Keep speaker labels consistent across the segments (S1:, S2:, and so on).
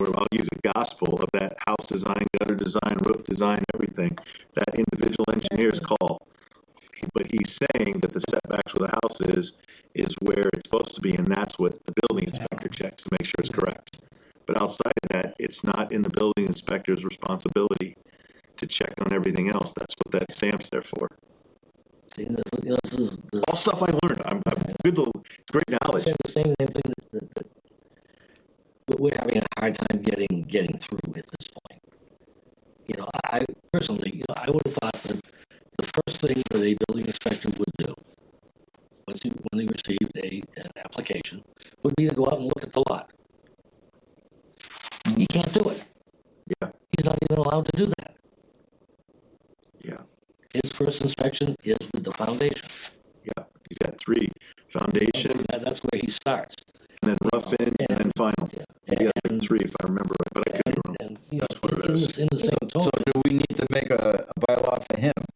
S1: I'll use a gospel of that house design, gutter design, roof design, everything, that individual engineer's call. But he's saying that the setbacks where the house is, is where it's supposed to be, and that's what the building inspector checks to make sure it's correct. But outside of that, it's not in the building inspector's responsibility to check on everything else. That's what that stamp's there for.
S2: See, this, this is the,
S1: All stuff I learned. I'm, I'm good, little- great knowledge.
S2: saying the same thing that, that, that- that we're having a hard time getting getting through at this point. You know, I personally, you know, I would have thought that the first thing that a building inspector would do once he, when he received a an application would be to go out and look at the lot. He can't do it.
S1: Yeah,
S2: He's not even allowed to do that.
S1: yeah,
S2: His first inspection is with the foundation.
S1: yeah. He's got three, foundation,
S2: That- that's where he starts.
S1: and then rough in, and then final.
S2: Yeah.
S1: He got like three, if I remember right, but I could be wrong.
S2: And, you know,
S3: That's what it
S2: in,
S3: is.
S2: the- in the same
S3: So
S2: tone,
S3: do we need to make a, a bylaw for him?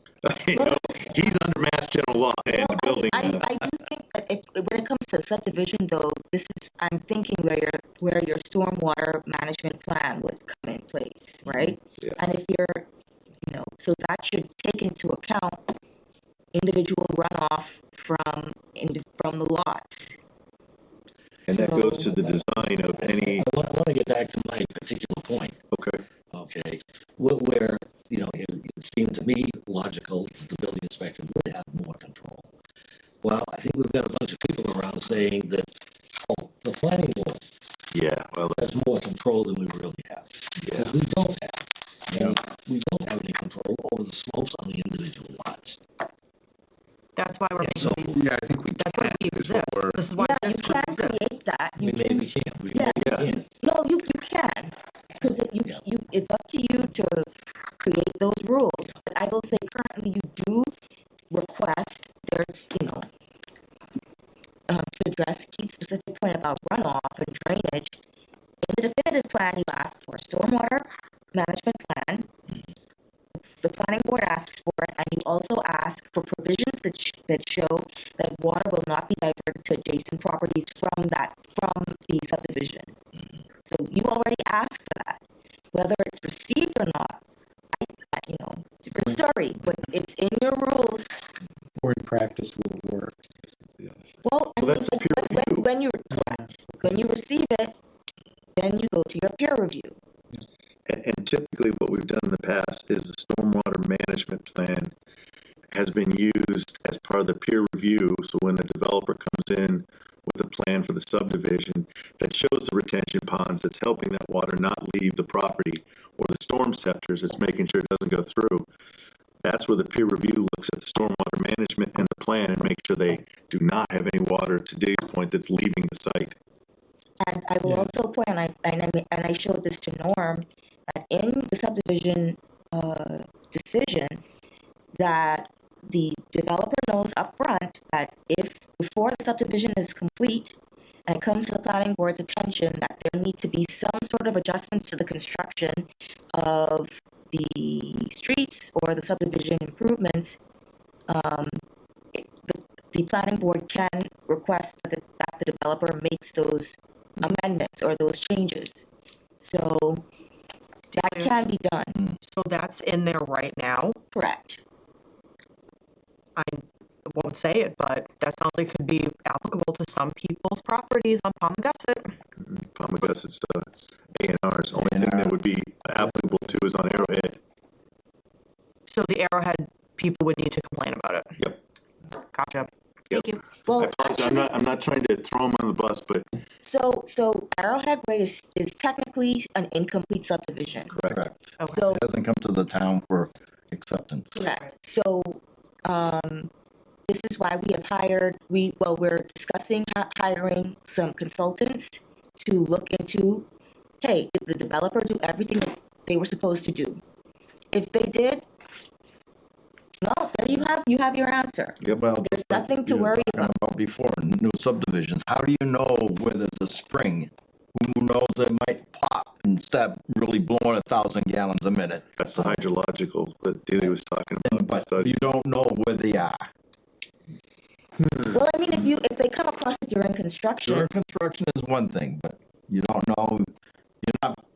S1: You know, he's under mass general law and
S4: Well, I-
S1: building.
S4: I,
S1: uh,
S4: I do think that it, when it comes to subdivision though, this is, I'm thinking where your, where your stormwater management plan would come in place, right?
S1: Yeah.
S4: And if you're, you know, so that should take into account individual runoff from, in, from the lots.
S1: And that
S4: So-
S1: goes to the design of any,
S2: I want, I want to get back to my particular point,
S1: okay,
S2: okay? Where, where you know, it, it seemed to me logical that the building inspector would have more control. Well, I think we've got a bunch of people around saying that, oh, the planning board
S1: yeah, well,
S2: has more control than we really have.
S1: Yeah.
S2: We don't have, and we don't have any control over the slopes on the individual lots.
S5: That's why we're
S2: So-
S5: making these. Yeah, I think we. That's why we exist. This is why
S4: Yeah, you
S5: this group
S4: can
S5: exists.
S4: create that.
S2: We
S4: You
S2: may,
S4: can-
S2: we can't, we
S4: Yeah.
S2: may, we can't.
S4: No, you, you can, because you,
S2: Yeah.
S4: you, it's up to you to create those rules. But I will say currently you do request, there's, you know, um, to address Keith's specific point about runoff and drainage, in the definitive plan, you ask for a stormwater management plan. The planning board asks for it, and you also ask for provisions that, sh- that show that water will not be diverted to adjacent properties from that, from the subdivision. So you already asked for that, whether it's received or not, I, I, you know, different story, but it's in your rules.
S6: or in practice will work. is the other thing.
S4: Well, I
S1: Well,
S4: mean,
S1: that's a
S4: when,
S1: peer
S4: when, when you, correct, when you receive it, then you go to your peer review.
S1: and, and typically what we've done in the past is the stormwater management plan has been used as part of the peer review, so when the developer comes in with a plan for the subdivision that shows the retention ponds, that's helping that water not leave the property, or the storm scepters, it's making sure it doesn't go through. That's where the peer review looks at the stormwater management and the plan and make sure they do not have any water to Dave's point that's leaving the site.
S4: And I will also point, and I, and I, and I showed this to Norm, that in the subdivision, uh, decision, that the developer knows upfront that if, before the subdivision is complete, and it comes to the planning board's attention, that there need to be some sort of adjustments to the construction of the streets or the subdivision improvements, um, the planning board can request that the, that the developer makes those amendments or those changes. So that can be done,
S5: So that's in there right now.
S4: correct?
S5: I won't say it, but that sounds like it could be applicable to some people's properties on Palm Gussit.
S1: Palmagussit stuff, uh, A and R's, only thing that would be applicable to is on Arrowhead,
S5: So the Arrowhead people would need to complain about it.
S1: yep.
S5: Gotcha.
S1: Yep.
S5: Thank you.
S1: I
S4: Well,
S1: apologize, I'm
S4: actually,
S1: not, I'm not trying to throw him on the bus, but
S4: so, so Arrowhead Way is, is technically an incomplete subdivision.
S3: Correct.
S5: Okay.
S4: So
S3: It hasn't come to the town for acceptance.
S4: Correct. So, um, this is why we have hired, we, well, we're discussing hi- hiring some consultants to look into, hey, did the developer do everything that they were supposed to do? If they did, well, there you have, you have your answer.
S3: Yeah, well.
S4: There's
S3: just like
S4: nothing to
S3: you were
S4: worry
S3: talking
S4: about.
S3: Before, new subdivisions, how do you know where there's a spring? Who knows, it might pop and stop really blowing a thousand gallons a minute.
S1: that's the hydrological that Dealey was talking about. the
S3: But
S1: study.
S3: you don't know where they are.
S4: Well, I mean, if you, if they come across it during construction,
S3: During construction is one thing, but you don't know, you're not